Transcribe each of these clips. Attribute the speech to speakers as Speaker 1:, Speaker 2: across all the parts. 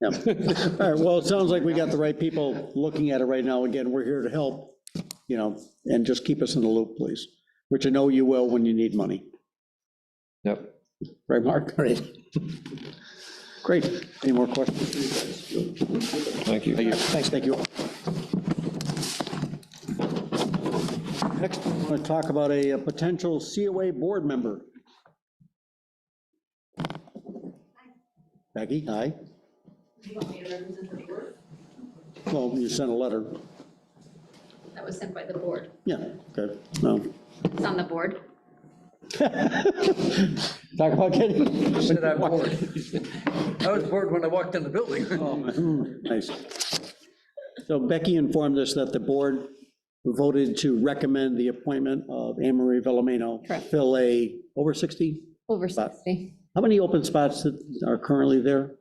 Speaker 1: Yeah. All right, well, it sounds like we got the right people looking at it right now. Again, we're here to help, you know, and just keep us in the loop, please, which I know you will when you need money.
Speaker 2: Yep.
Speaker 1: Right, Mark? Right. Great. Any more questions?
Speaker 2: Thank you.
Speaker 1: Thanks, thank you. Next, we want to talk about a a potential COA board member. Becky, hi.
Speaker 3: You want me to represent the board?
Speaker 1: Well, you sent a letter.
Speaker 3: That was sent by the board.
Speaker 1: Yeah, okay, no.
Speaker 3: It's on the board.
Speaker 1: Talk about getting.
Speaker 4: Said I'm bored. I was bored when I walked in the building.
Speaker 1: Mm-hmm. Nice. So Becky informed us that the board voted to recommend the appointment of Anne Marie Vellamino.
Speaker 5: Correct.
Speaker 1: Fill a, over 60?
Speaker 5: Over
Speaker 1: But-
Speaker 5: 60.
Speaker 1: How many open spots that are currently there?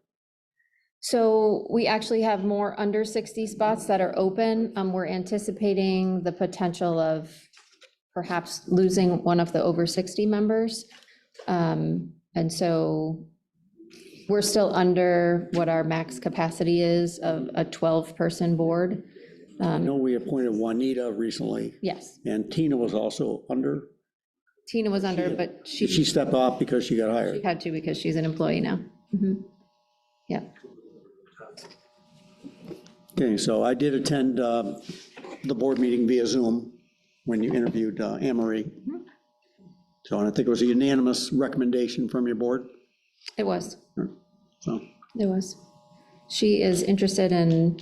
Speaker 5: So we actually have more under 60 spots that are open. Um, We're anticipating the potential of perhaps losing one of the over 60 members. Um, And so we're still under what our max capacity is of a 12-person board.
Speaker 1: I know we appointed Juanita recently,
Speaker 5: Yes,
Speaker 1: and Tina was also under.
Speaker 5: Tina was under, but
Speaker 1: Did
Speaker 5: she
Speaker 1: she step off because she got hired?
Speaker 5: had to because she's an employee now. Mhm. Yeah.
Speaker 1: Okay, so I did attend um, the board meeting via Zoom when you interviewed uh, Anne Marie. So, and I think it was a unanimous recommendation from your board,
Speaker 5: it was.
Speaker 1: so.
Speaker 5: There was. She is interested in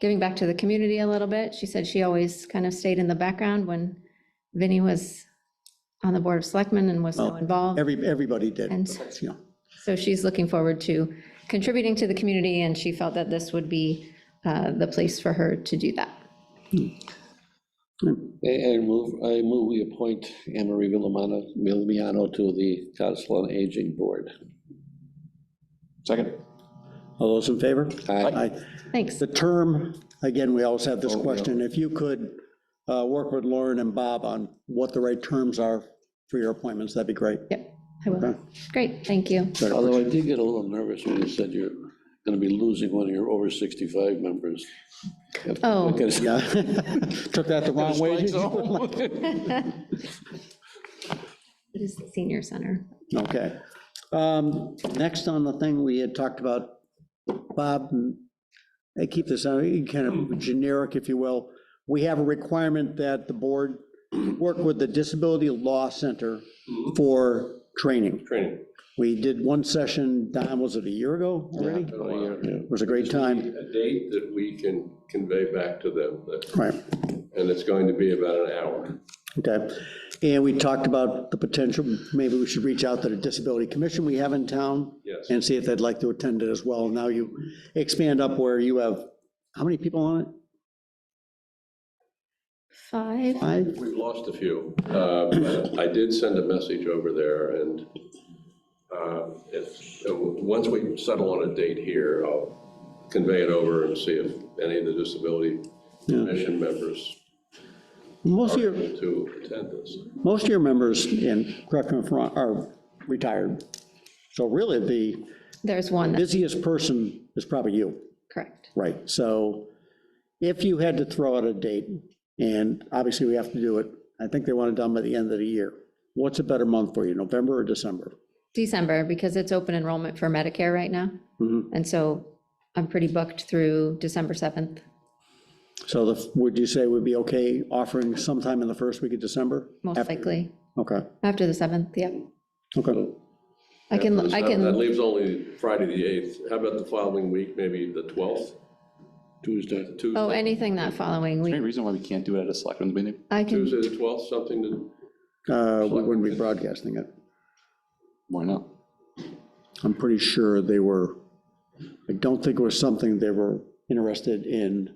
Speaker 5: giving back to the community a little bit. She said she always kind of stayed in the background when Vinnie was on the Board of Selectmen and was so involved.
Speaker 1: Every, everybody did.
Speaker 5: And-
Speaker 1: but, you know,
Speaker 5: So she's looking forward to contributing to the community, and she felt that this would be uh, the place for her to do that.
Speaker 2: I I move, I move we appoint Anne Marie Villamano, Villamiano to the Council on Aging Board.
Speaker 6: Second.
Speaker 1: All those in favor?
Speaker 2: Aye.
Speaker 1: Aye.
Speaker 5: Thanks.
Speaker 1: The term, again, we always have this
Speaker 2: Oh, yeah.
Speaker 1: question, if you could uh, work with Lauren and Bob on what the right terms are for your appointments, that'd be great.
Speaker 5: Yep, I will. Great, thank you.
Speaker 2: Although I did get a little nervous when you said you're going to be losing one of your over 65 members.
Speaker 5: Oh.
Speaker 2: Because-
Speaker 1: Yeah. Took that the wrong way. did you?
Speaker 5: It is the senior center.
Speaker 1: Okay. Um, Next on the thing, we had talked about, Bob, I keep this uh, kind of generic, if you will. We have a requirement that the board work with the Disability Law Center for training.
Speaker 6: Training.
Speaker 1: We did one session, Don, was it a year ago already? It
Speaker 6: Oh, yeah.
Speaker 2: Yeah.
Speaker 1: was a great time.
Speaker 6: A date that we can convey back to them, that-
Speaker 1: Right,
Speaker 6: and it's going to be about an hour.
Speaker 1: okay. And we talked about the potential, maybe we should reach out to the Disability Commission we have in town.
Speaker 6: Yes.
Speaker 1: and see if they'd like to attend it as well. Now you expand up where you have, how many people on it?
Speaker 5: Five,
Speaker 1: Five?
Speaker 6: We've lost a few. Uh, but I did send a message over there, and uh, if, uh, once we settle on a date here, I'll convey it over and see if any of the disability commission members
Speaker 1: Most
Speaker 6: are
Speaker 1: of your,
Speaker 6: able to attend this.
Speaker 1: most of your members, and correct me if I'm wrong, are retired. So really, the
Speaker 5: there's one, that's
Speaker 1: busiest person is probably you,
Speaker 5: correct.
Speaker 1: right? So if you had to throw out a date, and obviously we have to do it, I think they want it done by the end of the year. What's a better month for you, November or December?
Speaker 5: December, because it's open enrollment for Medicare right now. And so I'm pretty booked through December 7th.
Speaker 1: So the, would you say would be okay offering sometime in the first week of December?
Speaker 5: Most
Speaker 1: After-
Speaker 5: likely,
Speaker 1: Okay,
Speaker 5: after the 7th, yeah.
Speaker 1: okay.
Speaker 5: I can, I
Speaker 6: That
Speaker 5: can,
Speaker 6: leaves only Friday, the 8th. How about the following week, maybe the 12th,
Speaker 2: Tuesday.
Speaker 6: Tuesday?
Speaker 5: oh, anything that following
Speaker 7: Any
Speaker 5: week,
Speaker 7: reason why we can't do it at a selectmen's meeting?
Speaker 5: I can,
Speaker 6: Tuesday, the 12th, something to,
Speaker 1: Uh, We wouldn't be broadcasting it.
Speaker 7: Why not?
Speaker 1: I'm pretty sure they were, I don't think it was something they were interested in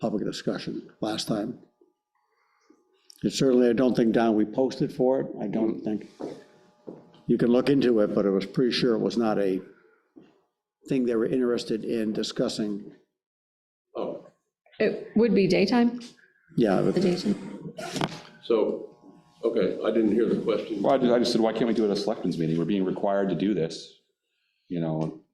Speaker 1: public discussion last time. And certainly, I don't think, Don, we posted for it. I don't think. You can look into it, but I was pretty sure it was not a thing they were interested in discussing.
Speaker 6: oh,
Speaker 5: it would be daytime,
Speaker 1: Yeah, but-
Speaker 5: the daytime.
Speaker 6: so, okay, I didn't hear the question.
Speaker 7: Well, I just, I just said, why can't we do it at a selectmen's meeting? We're being required to do this, you know,